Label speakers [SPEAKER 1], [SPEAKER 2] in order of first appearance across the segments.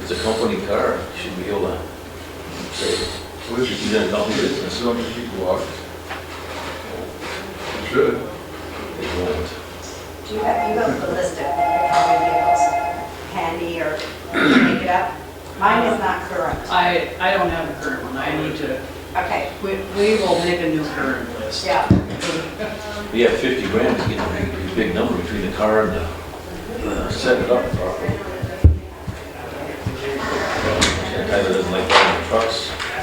[SPEAKER 1] It's a company car, you should be able to trade it.
[SPEAKER 2] Well, this is,
[SPEAKER 1] She's in a company business.
[SPEAKER 2] this is on the heat block. It should.
[SPEAKER 1] They won't.
[SPEAKER 3] Do you have, you have a list of common vehicles handy or make it up? Mine is not current.
[SPEAKER 4] I, I don't have a current one, I need to,
[SPEAKER 3] Okay,
[SPEAKER 4] we, we will make a new current list.
[SPEAKER 3] yeah.
[SPEAKER 1] You have 50 grand, you get a big- big number between the car and the, uh, set it up properly. Tyler doesn't like buying trucks.
[SPEAKER 2] I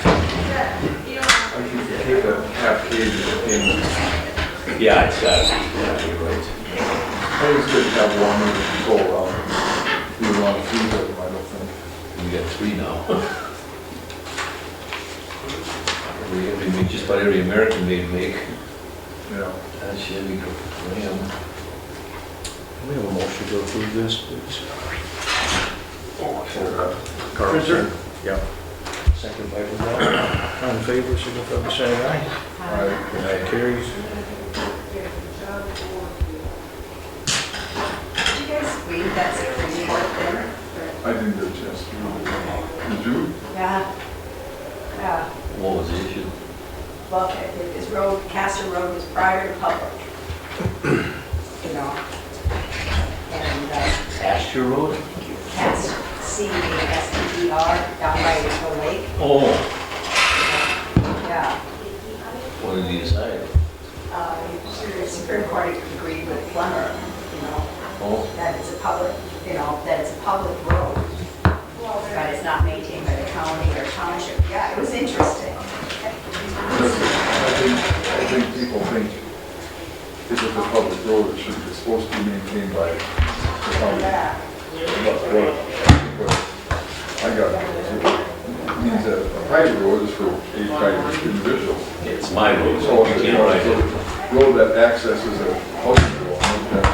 [SPEAKER 2] think you take that half cage in.
[SPEAKER 1] Yeah, it's got, yeah, you're right.
[SPEAKER 2] I think it's good to have one that you can go around. You don't want to feed them, I don't think.
[SPEAKER 1] We got three now. We, we make just about every American they make,
[SPEAKER 2] Yeah.
[SPEAKER 1] that Chevy Ram.
[SPEAKER 5] Can we have a motion to approve this, please?
[SPEAKER 1] Carlson.
[SPEAKER 5] Yep. Second by Brunel. All in favor, signify by saying aye.
[SPEAKER 2] Right.
[SPEAKER 5] Aye. Carries.
[SPEAKER 3] Did you guys read that security report thing?
[SPEAKER 2] I didn't get a chance to do it. Did you?
[SPEAKER 3] Yeah. Yeah,
[SPEAKER 1] What was the issue?
[SPEAKER 3] well, it- it- this road, Castor Road was prior to public. You know? And, uh,
[SPEAKER 1] Astor Road?
[SPEAKER 3] Cast, C A S T E R, down by Eagle Lake,
[SPEAKER 1] Oh,
[SPEAKER 3] yeah.
[SPEAKER 1] what did he decide?
[SPEAKER 3] Uh, The Supreme Court agreed with Plummer, you know,
[SPEAKER 1] Oh,
[SPEAKER 3] that it's a public, you know, that it's a public road, but it's not maintained by the county or township. Yeah, it was interesting.
[SPEAKER 2] I think, I think people think if it's a public road, it should, it's supposed to be maintained by the county.
[SPEAKER 3] Yeah.
[SPEAKER 2] But what- what I got it means that a private road is for a private individual.
[SPEAKER 1] it's my road, so
[SPEAKER 2] So
[SPEAKER 1] you
[SPEAKER 2] if
[SPEAKER 1] can't ride it.
[SPEAKER 2] it's a road that accesses a public road, that's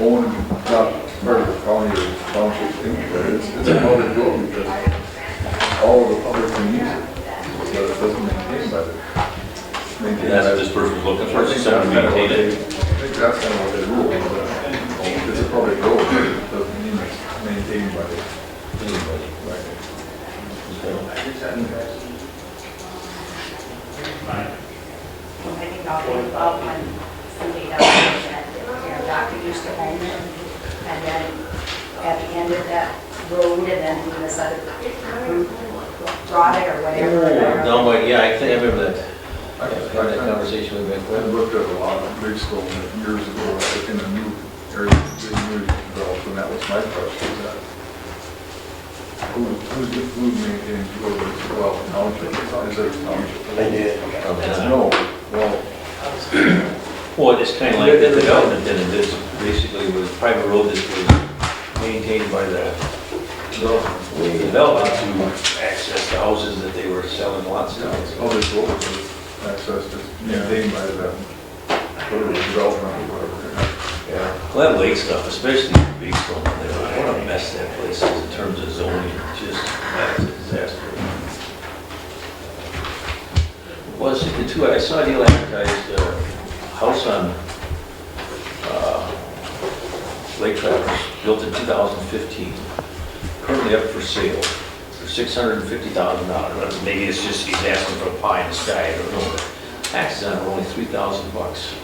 [SPEAKER 2] owned, not part of the county or township, it's, it's a public road because all of the public can use it, but it doesn't maintain by the. maintained
[SPEAKER 1] That's
[SPEAKER 2] by
[SPEAKER 1] what
[SPEAKER 2] the-
[SPEAKER 1] this person's looking
[SPEAKER 2] I
[SPEAKER 1] for,
[SPEAKER 2] think
[SPEAKER 1] is
[SPEAKER 2] that's kind
[SPEAKER 1] someone
[SPEAKER 2] of
[SPEAKER 1] to
[SPEAKER 2] what
[SPEAKER 1] maintain
[SPEAKER 2] they, I
[SPEAKER 1] it.
[SPEAKER 2] think that's kind of what they rule, but it's a public road, but it doesn't mean it's maintained by the,
[SPEAKER 1] Anybody.
[SPEAKER 2] by
[SPEAKER 3] I think I'll be involved when somebody does that, you know, Dr. used to own it. And then at the end of that road, and then this other group brought it or whatever.
[SPEAKER 1] Oh, Down by, yeah, I think I remember that. I had that
[SPEAKER 2] the.
[SPEAKER 1] conversation with my
[SPEAKER 2] I
[SPEAKER 1] friend.
[SPEAKER 2] looked at a lot of big stone years ago, like in a new area, big new developed, and that was my question, is that who, who, who maintains roads, well, township, is it township?
[SPEAKER 6] I did.
[SPEAKER 1] Oh,
[SPEAKER 2] No, well,
[SPEAKER 1] Well, it's kind of like the development then, it is basically was private road that was maintained by the development development to access the houses that they were selling lots
[SPEAKER 2] yeah, it's
[SPEAKER 1] of.
[SPEAKER 2] public roads, it's access to, maintained by the, whatever, development, or whatever.
[SPEAKER 1] Glen Lake stuff, especially big stone, there, what a mess that place is in terms of zoning, It's just, that's a disaster. Well, it's the two, I saw Neil advertised uh house on uh, Lake Traverse, built in 2015, currently up for sale for $650,000. Maybe it's just he's asking for a pie in the sky, I don't know. Taxes on it are only 3,000 bucks.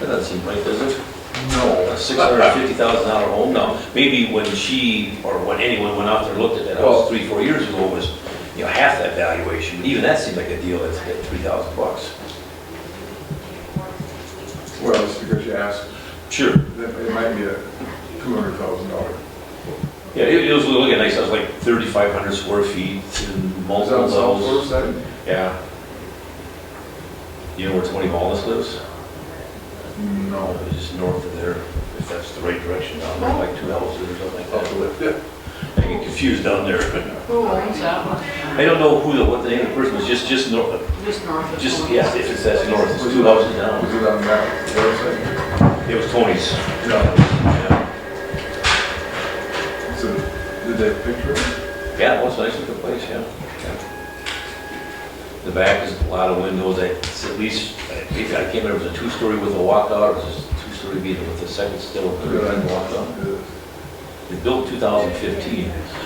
[SPEAKER 1] That doesn't seem right, does it?
[SPEAKER 2] No,
[SPEAKER 1] a six hundred and fifty thousand dollar home now. Maybe when she, or when anyone went out there and looked at that house
[SPEAKER 2] Well-
[SPEAKER 1] three, four years ago, it was, you know, half that valuation, but even that seemed like a deal that's at three thousand bucks.
[SPEAKER 2] well, it's because you asked,
[SPEAKER 1] Sure.
[SPEAKER 2] that it might be a two hundred thousand dollar.
[SPEAKER 1] Yeah, it, it was looking nice, it was like thirty-five hundred square feet, and
[SPEAKER 2] Is that
[SPEAKER 1] multiple
[SPEAKER 2] on South
[SPEAKER 1] levels.
[SPEAKER 2] Fork side?
[SPEAKER 1] Yeah. You know where Tony Wallace lives? Oh,
[SPEAKER 2] No.
[SPEAKER 1] It's just north of there, if that's the right direction, down there, like two houses or something like that.
[SPEAKER 2] Yeah.
[SPEAKER 1] I get confused down there, but
[SPEAKER 4] Who owns that one?
[SPEAKER 1] I don't know who the, what the name of the person was, just, just north,
[SPEAKER 4] Just north of.
[SPEAKER 1] Just,
[SPEAKER 4] Florence.
[SPEAKER 1] yes, if it says north, it's two houses down.
[SPEAKER 2] Was it on that website?
[SPEAKER 1] It was Tony's.
[SPEAKER 2] No.
[SPEAKER 1] Yeah,
[SPEAKER 2] So, did they have picture? it?
[SPEAKER 1] Yeah, it was a nice looking place, yeah. The back is a lot of windows, it's at least, maybe, I can't remember, if it was a two-story with a walkout, or it was a two-story beat with a second still, third
[SPEAKER 2] Yeah, I
[SPEAKER 1] and
[SPEAKER 2] walked
[SPEAKER 1] walkout.
[SPEAKER 2] on.
[SPEAKER 1] It built 2015.